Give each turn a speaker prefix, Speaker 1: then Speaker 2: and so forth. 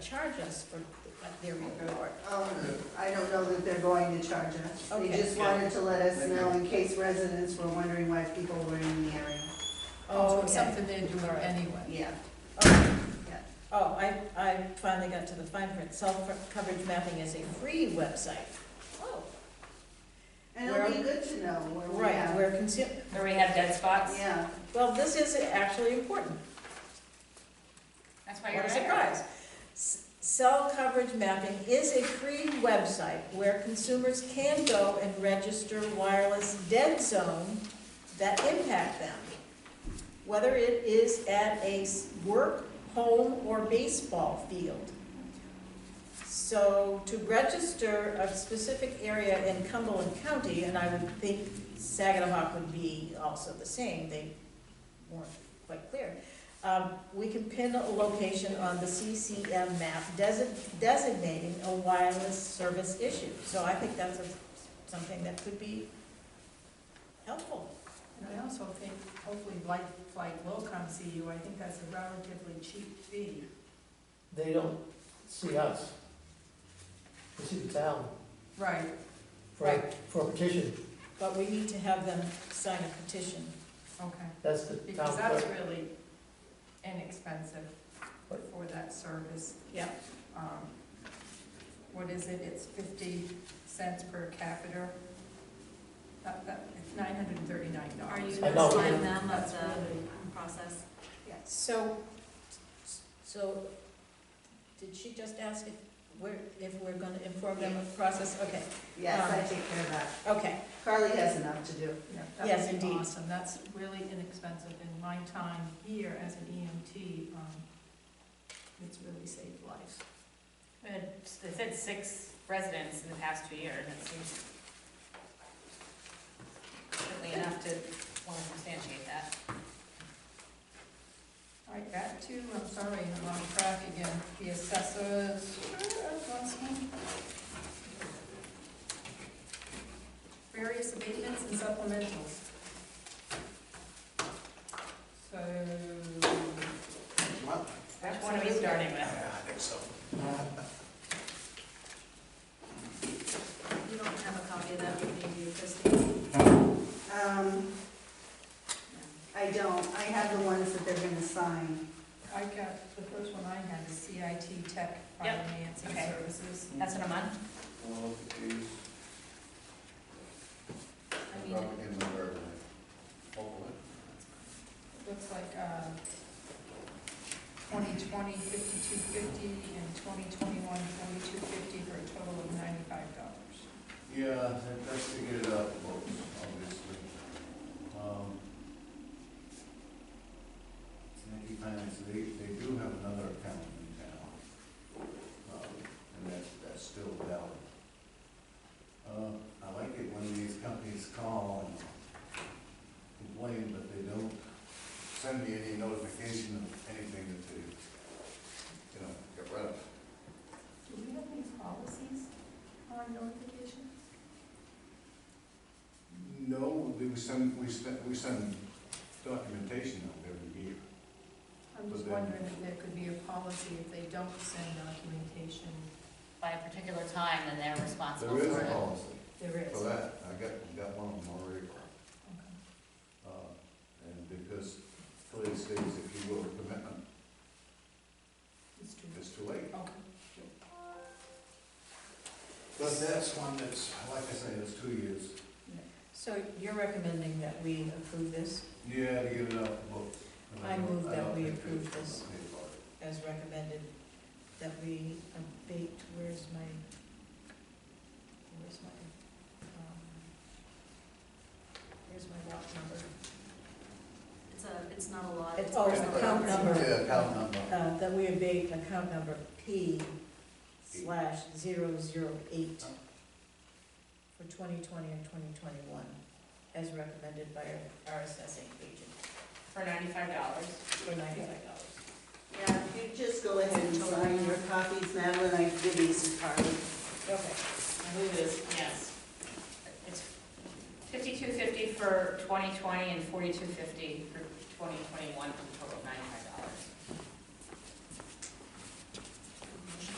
Speaker 1: charge us for their report.
Speaker 2: Um, I don't know that they're going to charge us. They
Speaker 1: Okay.
Speaker 2: just wanted to let us know in case residents were wondering why people were in the area.
Speaker 1: Oh,
Speaker 3: It's
Speaker 1: okay.
Speaker 3: Something they're doing anyway.
Speaker 2: Yeah.
Speaker 1: Oh, I, I finally got to the fine print. Self-coverage mapping is a free website. Oh.
Speaker 2: And it'll be good to know where we
Speaker 1: Right,
Speaker 2: have,
Speaker 1: where consumer,
Speaker 4: Where we have dead spots?
Speaker 2: yeah.
Speaker 1: well, this is actually important.
Speaker 4: That's why
Speaker 1: What
Speaker 4: you're
Speaker 1: a
Speaker 4: there.
Speaker 1: surprise. S- Cell coverage mapping is a free website where consumers can go and register wireless dead zone that impact them. Whether it is at a s- work, home, or baseball field. So to register a specific area in Cumberland County, and I would think Saginaw would be also the same, they weren't quite clear. Um, we can pin a location on the CCM map desi- designating a wireless service issue. So I think that's a- something that could be helpful.
Speaker 3: And I also think, hopefully, like, like Lowcom see you, I think that's a relatively cheap fee.
Speaker 5: They don't see us. They see the town
Speaker 3: Right.
Speaker 5: for, for a petition.
Speaker 1: But we need to have them sign a petition.
Speaker 3: Okay,
Speaker 5: That's the town
Speaker 3: because that's
Speaker 5: clerk.
Speaker 3: really inexpensive for that service.
Speaker 1: Yeah.
Speaker 3: Um, What is it, it's fifty cents per capita? That, that, it's nine hundred and thirty-nine
Speaker 6: Are you
Speaker 3: dollars.
Speaker 5: I
Speaker 6: going
Speaker 5: know.
Speaker 6: to sign them of
Speaker 3: That's
Speaker 6: the
Speaker 3: really,
Speaker 6: process?
Speaker 1: So, so, did she just ask if we're, if we're gonna inform them of the process? Okay,
Speaker 2: Yes, I take care of that.
Speaker 1: okay,
Speaker 2: Carly has enough to do.
Speaker 3: yeah, that
Speaker 1: Yes,
Speaker 3: would be
Speaker 1: indeed.
Speaker 3: awesome, that's really inexpensive, in my time here as an EMT, um, it's really saved lives.
Speaker 4: They said six residents in the past two years, and it seems certainly enough to want to substantiate that.
Speaker 3: All right, back to, I'm sorry, I'm on track again, the assessors. Various abatements and supplementals. So.
Speaker 4: Which one are we starting with?
Speaker 6: You don't have a copy of that with you, Christine?
Speaker 2: Um, I don't, I have the ones that they're gonna sign.
Speaker 3: I got, the first one I had is CIT Tech
Speaker 4: Yep,
Speaker 3: Finance and
Speaker 4: okay.
Speaker 3: Services.
Speaker 4: That's in a month?
Speaker 7: Well, geez,
Speaker 6: I mean,
Speaker 7: probably in the third, hopefully.
Speaker 3: Looks like, uh, twenty twenty, fifty-two fifty, and twenty twenty-one, forty-two fifty, for a total of ninety-five dollars.
Speaker 7: Yeah, that- that's to get it out of the books, obviously. Um, Yankee Finance, they, they do have another account in town. Um, And that's, that's still valid. Uh, I like it when these companies call and complain, but they don't send me any notification of anything that they, you know, get rid of.
Speaker 3: Do we have any policies on notification?
Speaker 7: No, we we send, we send, we send documentation out every year.
Speaker 3: I'm just wondering if there could be a policy if they don't send documentation.
Speaker 4: By a particular time, then they're responsible
Speaker 7: There is
Speaker 4: for
Speaker 7: a
Speaker 4: it.
Speaker 7: policy
Speaker 3: There is.
Speaker 7: for that, I got, got one of them already.
Speaker 3: Okay.
Speaker 7: Uh, And because Philly states, if you will, commitment,
Speaker 3: It's true.
Speaker 7: it's too late.
Speaker 3: Okay.
Speaker 7: But that's one that's, like I say, it's two years.
Speaker 1: so you're recommending that we approve this
Speaker 7: Yeah, to get it out the books. And
Speaker 1: I
Speaker 7: don't-
Speaker 1: move that
Speaker 7: don't
Speaker 1: we
Speaker 7: think
Speaker 1: approve
Speaker 7: there's
Speaker 1: this.
Speaker 7: any part of it.
Speaker 1: as recommended, that we abate, where's my, where's my, um, where's my lot number?
Speaker 6: it's a, it's not a lot.
Speaker 1: Oh, It's always the account number.
Speaker 7: Yeah, account number.
Speaker 1: Uh, that we abate account number P slash zero zero eight for twenty twenty and twenty twenty-one, as recommended by our- our assessing agent
Speaker 4: For ninety-five dollars.
Speaker 1: for ninety-five dollars.
Speaker 2: Yeah, if you just go ahead and sign your copies, Madeline, I can give you some Carly.
Speaker 1: Okay.
Speaker 4: Lose, yes. It's fifty-two fifty for twenty twenty and forty-two fifty for twenty twenty-one, for a total of ninety-five dollars.